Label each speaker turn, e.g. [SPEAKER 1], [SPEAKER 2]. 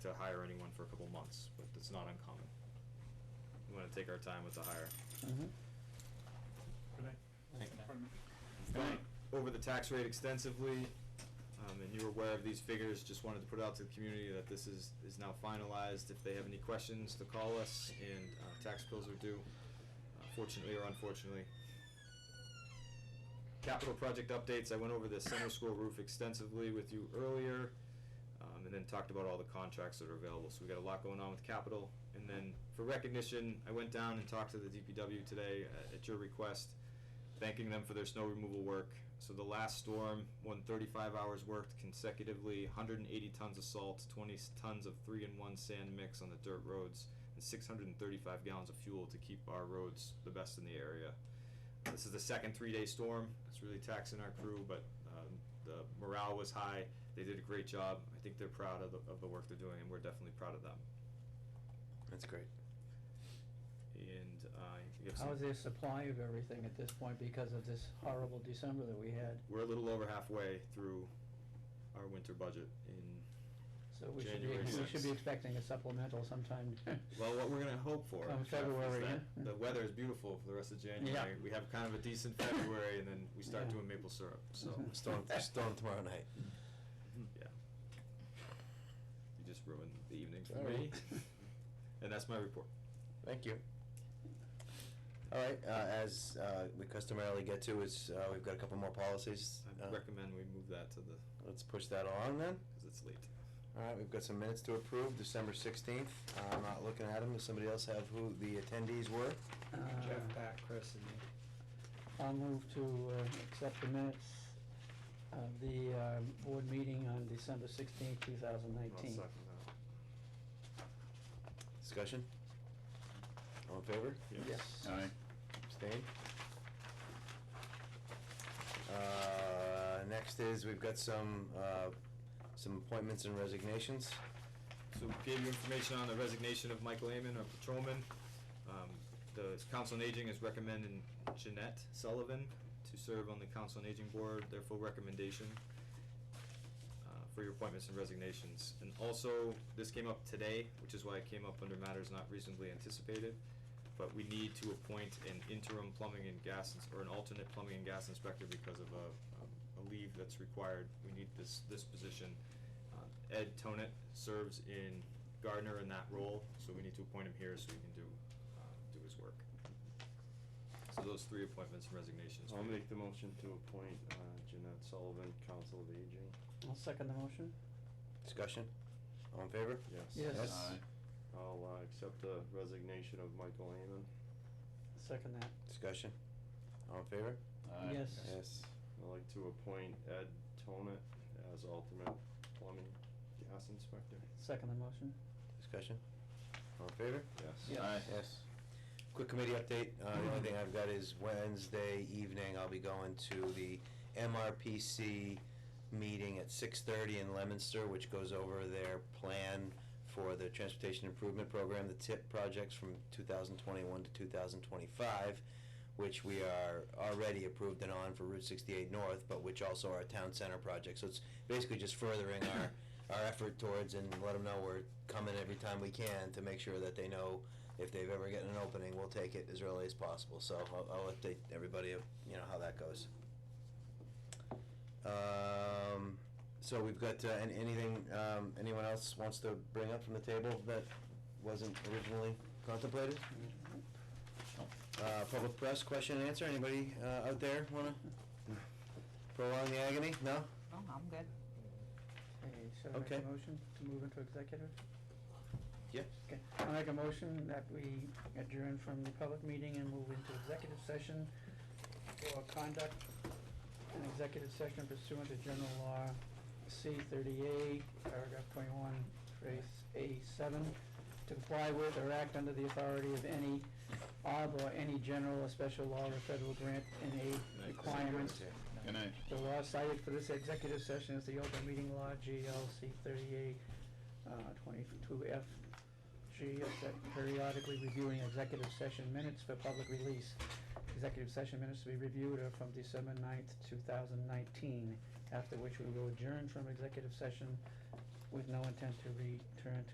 [SPEAKER 1] hire anyone for a couple months, but that's not uncommon. We wanna take our time with the hire.
[SPEAKER 2] Good night. Pardon me.
[SPEAKER 1] Going over the tax rate extensively, um, and you were aware of these figures, just wanted to put out to the community that this is, is now finalized. If they have any questions, to call us, and, uh, tax bills are due, uh, fortunately or unfortunately. Capital project updates, I went over the center school roof extensively with you earlier, um, and then talked about all the contracts that are available, so we got a lot going on with capital. And then for recognition, I went down and talked to the DPW today, uh, at your request, thanking them for their snow removal work. So the last storm, won 35 hours worked consecutively, 180 tons of salt, 20 s- tons of three in one sand mix on the dirt roads, and 635 gallons of fuel to keep our roads the best in the area. This is the second three day storm. It's really taxing our crew, but um, the morale was high. They did a great job. I think they're proud of the, of the work they're doing, and we're definitely proud of them.
[SPEAKER 3] That's great.
[SPEAKER 1] And uh, you have
[SPEAKER 4] How
[SPEAKER 1] some-
[SPEAKER 4] is their supply of everything at this point because of this horrible December that we had?
[SPEAKER 1] we're a little over halfway through our winter budget in
[SPEAKER 4] So we should be,
[SPEAKER 1] January
[SPEAKER 4] we should be
[SPEAKER 1] 6th.
[SPEAKER 4] expecting a supplemental sometime. uh,
[SPEAKER 1] Well, what we're gonna hope for
[SPEAKER 4] Come
[SPEAKER 1] Jeff, is
[SPEAKER 4] February,
[SPEAKER 1] that
[SPEAKER 4] yeah.
[SPEAKER 1] the weather is beautiful for the rest of January. We have kind of a decent February, and then we start
[SPEAKER 4] Yeah. Mm-hmm.
[SPEAKER 1] doing maple syrup. So
[SPEAKER 3] Storm, storm tomorrow night.
[SPEAKER 1] yeah, you just ruined the evening for
[SPEAKER 3] Sorry.
[SPEAKER 1] me, and that's my report.
[SPEAKER 3] Thank you. All right, uh, as, uh, we customarily get to is, uh, we've got a couple more policies.
[SPEAKER 1] I
[SPEAKER 3] Uh,
[SPEAKER 1] recommend we move that to the
[SPEAKER 3] Let's push that along then.
[SPEAKER 1] because it's late.
[SPEAKER 3] All right, we've got some minutes to approve, December sixteenth. Uh, I'm not looking at them. Does somebody else have who the attendees were?
[SPEAKER 4] Uh,
[SPEAKER 5] Jeff, Pat, Chris, and me.
[SPEAKER 4] I'll move to uh, accept the minutes of the uh, board meeting on December sixteenth, two thousand nineteen.
[SPEAKER 3] Discussion? All in favor?
[SPEAKER 4] Yes.
[SPEAKER 3] Abstain? Uh, next is, we've got some, uh, some appointments and resignations.
[SPEAKER 1] So we gave you information on the resignation of Michael Amon, our patrolman. Um, the Council on Aging is recommending Jeanette Sullivan to serve on the Council on Aging Board, their full recommendation uh, for your appointments and resignations. And also, this came up today, which is why it came up under matters not reasonably anticipated. But we need to appoint an interim plumbing and gas, ins- or an alternate plumbing and gas inspector because of a, um, a leave that's required. We need this, this position. Uh, Ed Tonet serves in Gardner in that role, so we need to appoint him here so he can do, uh, do his work. So those three appointments and resignations.
[SPEAKER 6] I'll make the motion to appoint uh, Jeanette Sullivan, Council of Aging.
[SPEAKER 4] I'll second the motion.
[SPEAKER 3] Discussion? All in favor?
[SPEAKER 4] Yes.
[SPEAKER 3] Yes.
[SPEAKER 6] I'll uh, accept the resignation of Michael Amon.
[SPEAKER 4] Second that.
[SPEAKER 3] Discussion? All in favor?
[SPEAKER 4] Yes.
[SPEAKER 3] Yes.
[SPEAKER 6] I'd like to appoint Ed Tonet as alternate plumbing gas inspector.
[SPEAKER 4] Second the motion.
[SPEAKER 3] Discussion? All in favor?
[SPEAKER 4] Yes.
[SPEAKER 6] Yes.
[SPEAKER 4] Aye.
[SPEAKER 3] Yes. Quick committee update, uh, the only thing I've got is Wednesday evening, I'll be going to the MRPC meeting at six thirty in Leominster, which goes over their plan for the transportation improvement program, the TIP projects from two thousand twenty-one to two thousand twenty-five, which we are already approved and on for Route sixty-eight North, but which also are town center projects, so it's basically just furthering our our effort towards and let them know we're coming every time we can to make sure that they know if they've ever gotten an opening, we'll take it as early as possible. So I'll, I'll update everybody, of, you know, how that goes. Um, so we've got, uh, an- anything, um, anyone else wants to bring up from the table that wasn't originally contemplated? Uh, public press question and answer, anybody, uh, out there wanna prolong the agony? No?
[SPEAKER 7] Oh, I'm good.
[SPEAKER 4] Okay, should I make
[SPEAKER 3] Okay.
[SPEAKER 4] a motion to move into executive?
[SPEAKER 3] Yeah.
[SPEAKER 4] Okay, I make a motion that we adjourn from the public meeting and move into executive session for conduct an executive session pursuant to general law C thirty-eight, paragraph twenty-one, phrase A seven, to comply with or act under the authority of any arb or any general or special law or federal grant and aid requirements
[SPEAKER 5] Good night.
[SPEAKER 4] the law cited for this executive session is the open meeting law, GLC thirty-eight, uh, twenty-two F. G is that periodically reviewing executive session minutes for public release. Executive session minutes to be reviewed are from December 9th, two thousand nineteen, after which we will adjourn from executive session with no intent to return to